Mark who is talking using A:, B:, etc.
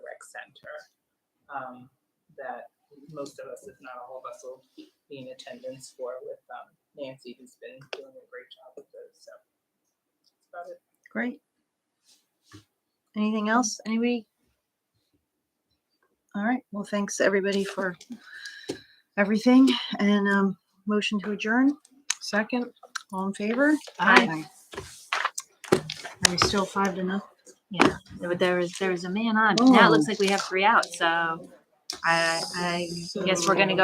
A: center um, that most of us, if not all of us, will be in attendance for with um, Nancy, who's been doing a great job with those. So that's about it.
B: Great. Anything else? Anybody? All right. Well, thanks everybody for everything and um, motion to adjourn. Second, all in favor?
C: Aye.
B: Aye. Are we still five to nothing?
C: Yeah, but there was there was a man on. but Now it looks like we have three out. So I I guess we're gonna go.